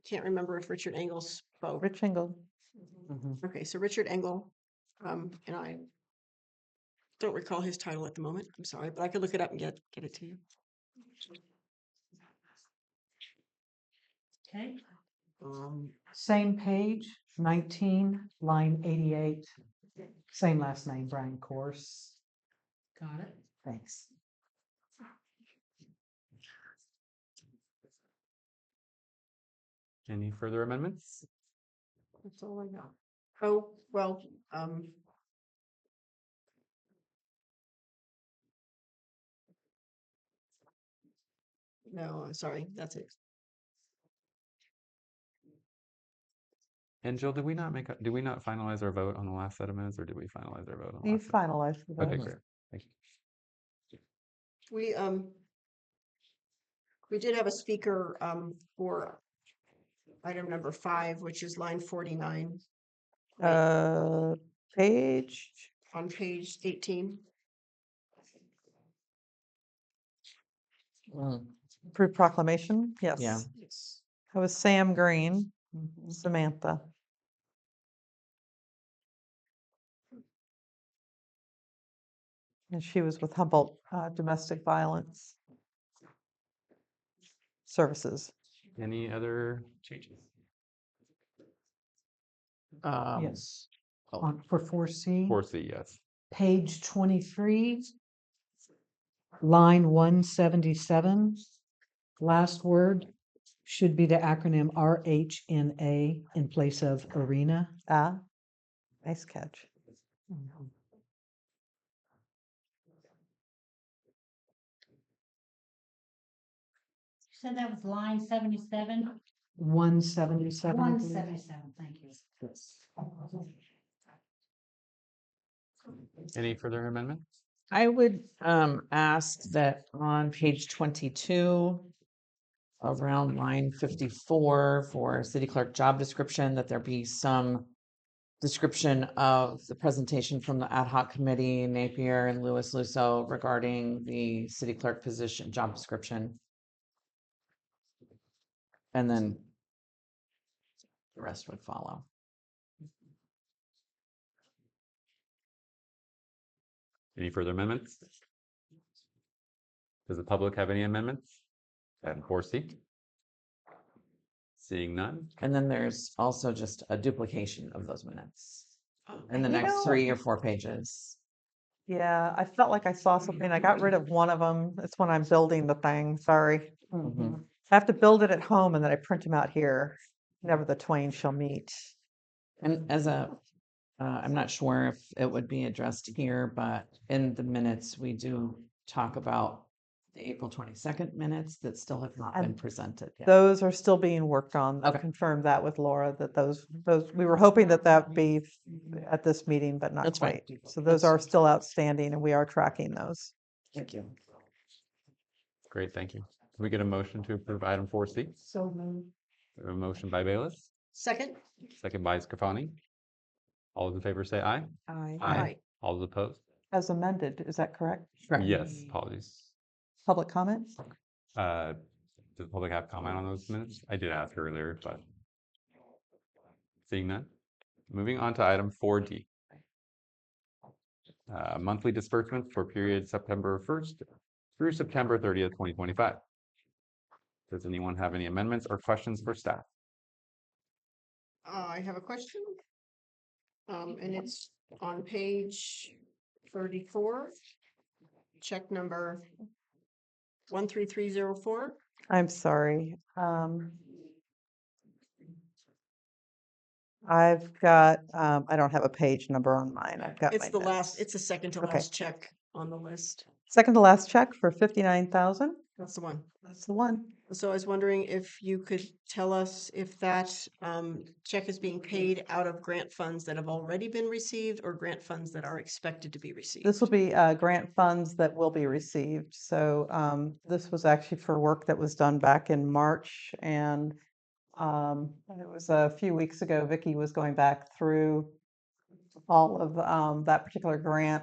can't remember if Richard Engel spoke. Rich Engel. Okay, so Richard Engel, um, and I don't recall his title at the moment. I'm sorry, but I could look it up and get, get it to you. Okay. Um, Same page, nineteen, line eighty-eight. Same last name, Brian Course. Got it. Thanks. any further amendments? That's all I got. Oh, well, um. No, I'm sorry, that's it. And Jill, did we not make, a- did we not finalize our vote on the last set of minutes or did we finalize our vote? on the You last set? finalized. the Okay, vote. great. Thank you. We, um, we did have a speaker, um, for item number five, which is line forty-nine right, Uh, page, on page eighteen. for proclamation, yes. Yes. That was Sam Green, Mm-hmm. Samantha. And she was with Humboldt uh, Domestic Violence Services. Any other changes? Um, Yes. oh. On, for four C, Four C, yes. page twenty-three, line one seventy-seven, last word should be the acronym R H N A in place of arena. Ah, nice catch. You said that was line seventy-seven? One seventy-seven. One seventy-seven, thank you. Any further amendments? I would um ask that on page twenty-two. Around line fifty-four for city clerk job description, that there be some. Description of the presentation from the ad hoc committee Napier and Louis Lusso regarding the city clerk position job description. And then. The rest would follow. Any further amendments? Does the public have any amendments? Item four C? Seeing none, And then there's also just a duplication of those minutes. Oh, in the You next know- three or four pages. Yeah, I felt like I saw something. I got rid of one of them. It's when I'm building the thing, sorry. Mhm. I have to build it at home and then I print them out here. Never the twain shall meet. And as a, uh, I'm not sure if it would be addressed here, but in the minutes, we do talk about the April twenty-second minutes that still have not been And presented yet. Those are still being worked on. I Okay. confirmed that with Laura, that those, those, we were hoping that that be f- at this meeting, but not That's fine. quite. So those That's- are still outstanding and we are tracking those. Thank you. great, thank you. Can we get a motion to approve item four C? So A motion by Bayless, Second? second by Scafani. All those in favor say aye. Aye. Aye. All those opposed? As amended, is that correct? Correct. Yes, apologies. Public comment? Uh, Does the public have comment on those minutes? I did ask earlier, but. Seeing none, moving on to item four D. Uh, Monthly disbursements for period September first through September thirtieth, twenty twenty-five. Does anyone have any amendments or questions for staff? Uh, I have a question. Um, and it's on page thirty-four. Check number one, three, three, zero, four. I'm sorry. Um, I've got, um, I don't have a page number on mine. I've got. It's my the last, notes. it's the second to Okay. last check on the list. Second to last check for fifty-nine thousand. That's the one. That's the one. So I was wondering if you could tell us if that um check is being paid out of grant funds that have already been received or grant funds that are expected to be received. This will be uh, grant funds that will be received. So um, this was actually for work that was done back in March. And um, it was a few weeks ago, Vicky was going back through all of um, that particular grant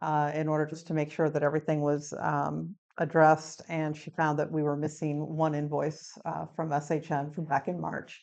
uh, in order just to make sure that everything was um, addressed. And she found that we were missing one invoice uh, from SHN from back in March.